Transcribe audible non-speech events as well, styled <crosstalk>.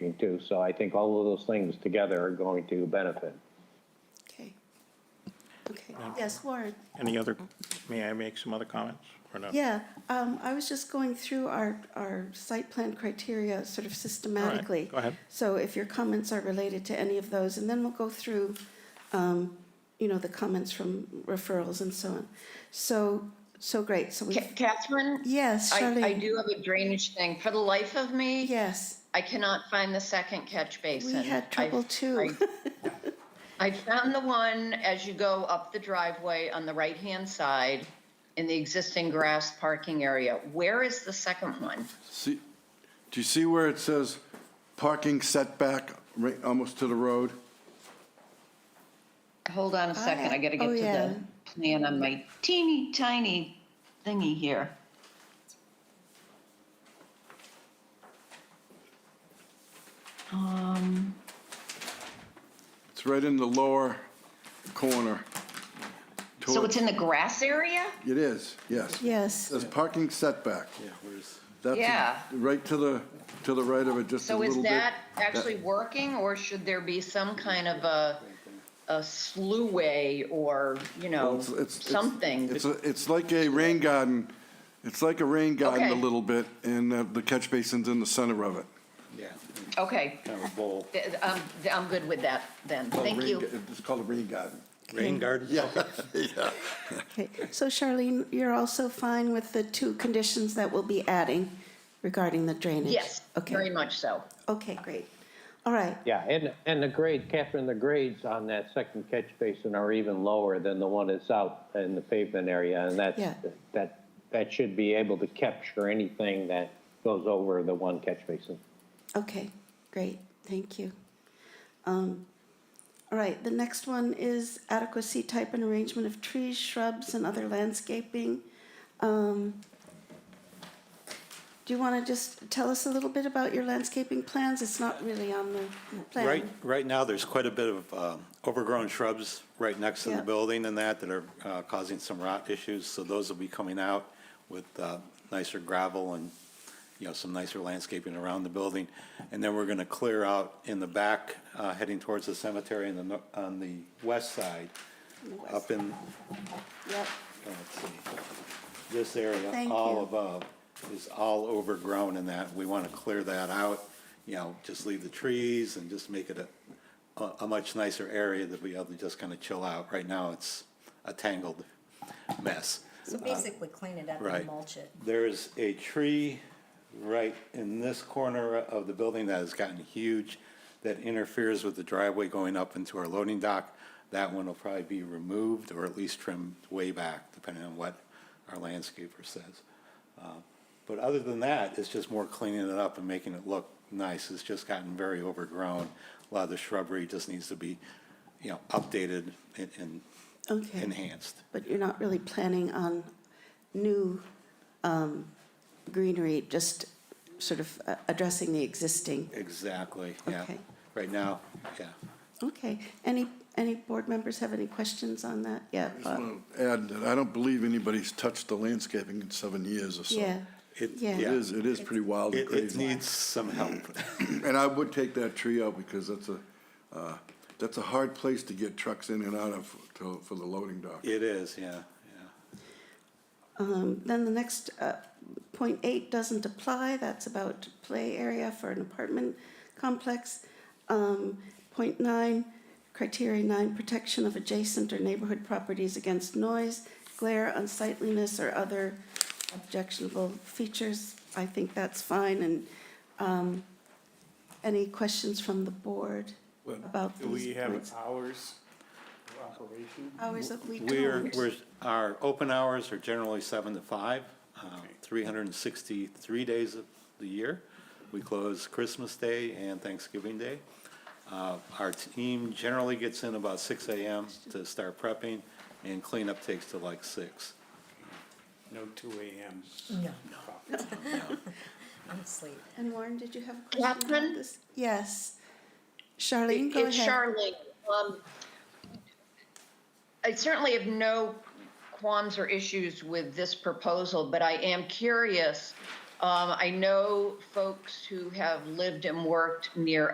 thing too. So I think all of those things together are going to benefit. Okay. Okay, Um, yes, Warren. Any other, may I make some other comments or not? Yeah, um, I was just going through our, our site plan criteria sort of systematically. go ahead. So if your comments are related to any of those, and then we'll go through, um, you know, the comments from referrals and so on. So, so great, so we, Ca- Catherine? yes, I, I Charlene, do have a drainage thing. For the life of me, yes, I cannot find the second catch we basin. had trouble I've- too. <laughs> I found the one as you go up the driveway on the right-hand side in the existing grass parking area. Where is the second one? See, do you see where it says parking setback, right, almost to the road? Hold on a second, I gotta get Oh, to yeah. the plan on my teeny tiny thingy here. Um, It's right in the lower corner. so it's in the grass area? It is, yes. It Yes, says parking setback. Yeah, where's? Yeah. That's right to the, to the right of it, just a So little bit. is that actually working, or should there be some kind of a, a sluway or, you Well, know, it's- it's- it's- something? It's, a- it's like a rain garden, it's like a rain garden a Okay. little bit, and uh, the catch basin's in the center of it. Okay, Kind of a bowl. th- um, th- I'm good with that then, thank Rain you. ga- It's called a rain garden. Rain garden? okay, so Charlene, you're also fine with the two conditions that we'll be adding regarding the drainage? Yes, very Okay, much so. okay, great, all right, Yeah, and, and the grade, Catherine, the grades on that second catch basin are even lower than the one that's out in the pavement area. And Yeah. that, that, that should be able to capture anything that goes over the one catch basin. Okay, great, thank you. Um, All right, the next one is adequacy, type, and arrangement of trees, shrubs, and other landscaping. Um, Do you want to just tell us a little bit about your landscaping plans? It's not really on the plan. Right, right now, there's quite a bit of um, overgrown shrubs right next to Yeah. the building and that that are uh, causing some rot issues. So those will be coming out with uh, nicer gravel and, you know, some nicer landscaping around the building. And then we're going to clear out in the back, uh, heading towards the cemetery on the, no- on the west side, west up in, Yep, let's see, this area, Thank you. all above, is all overgrown and that, we want to clear that out, you know, just leave the trees and just make it a, a, a much nicer area that we have to just kind of chill out. Right now, it's a tangled mess. So basically clean it up Right. and mulch it. There's a tree right in this corner of the building that has gotten huge that interferes with the driveway going up into our loading dock. That one will probably be removed or at least trimmed way back, depending on what our landscaper says. Uh, But other than that, it's just more cleaning it up and making it look nice. It's just gotten very overgrown. A lot of the shrubbery just needs to be, you know, updated and- and okay. enhanced. But you're not really planning on new um, greenery, just sort of uh, addressing the existing? Exactly, yeah. Okay. Right now, yeah. Okay, any, any board members have any questions on that? Yeah, Bob. Add that I don't believe anybody's touched the landscaping in seven years or so. yeah, It- Yeah. It is, it is pretty wild and It, it crazy. needs some help. And I would take that tree out because that's a, uh, that's a hard place to get trucks in and out of to- for the loading dock. It is, yeah, yeah. Um, then the next, uh, point eight doesn't apply, that's about play area for an apartment complex. Um, point nine, criteria nine, protection of adjacent or neighborhood properties against noise, glare, unsightliness, or other objectionable features. I think that's fine, and, um, any questions from the board about these Do we points? have hours of operation? Hours of week We're, hours. we're, our open hours are generally seven to five, uh, three hundred and sixty-three days of the year. We close Christmas Day and Thanksgiving Day. Uh, our team generally gets in about six AM to start prepping, and cleanup takes to like six. No two AMs. No, No. <laughs> I'm asleep. And Warren, did you have a question about Catherine? this? Yes. Charlene, go It's ahead. Charlene. Um, I certainly have no qualms or issues with this proposal, but I am curious Um, I know folks who have lived and worked near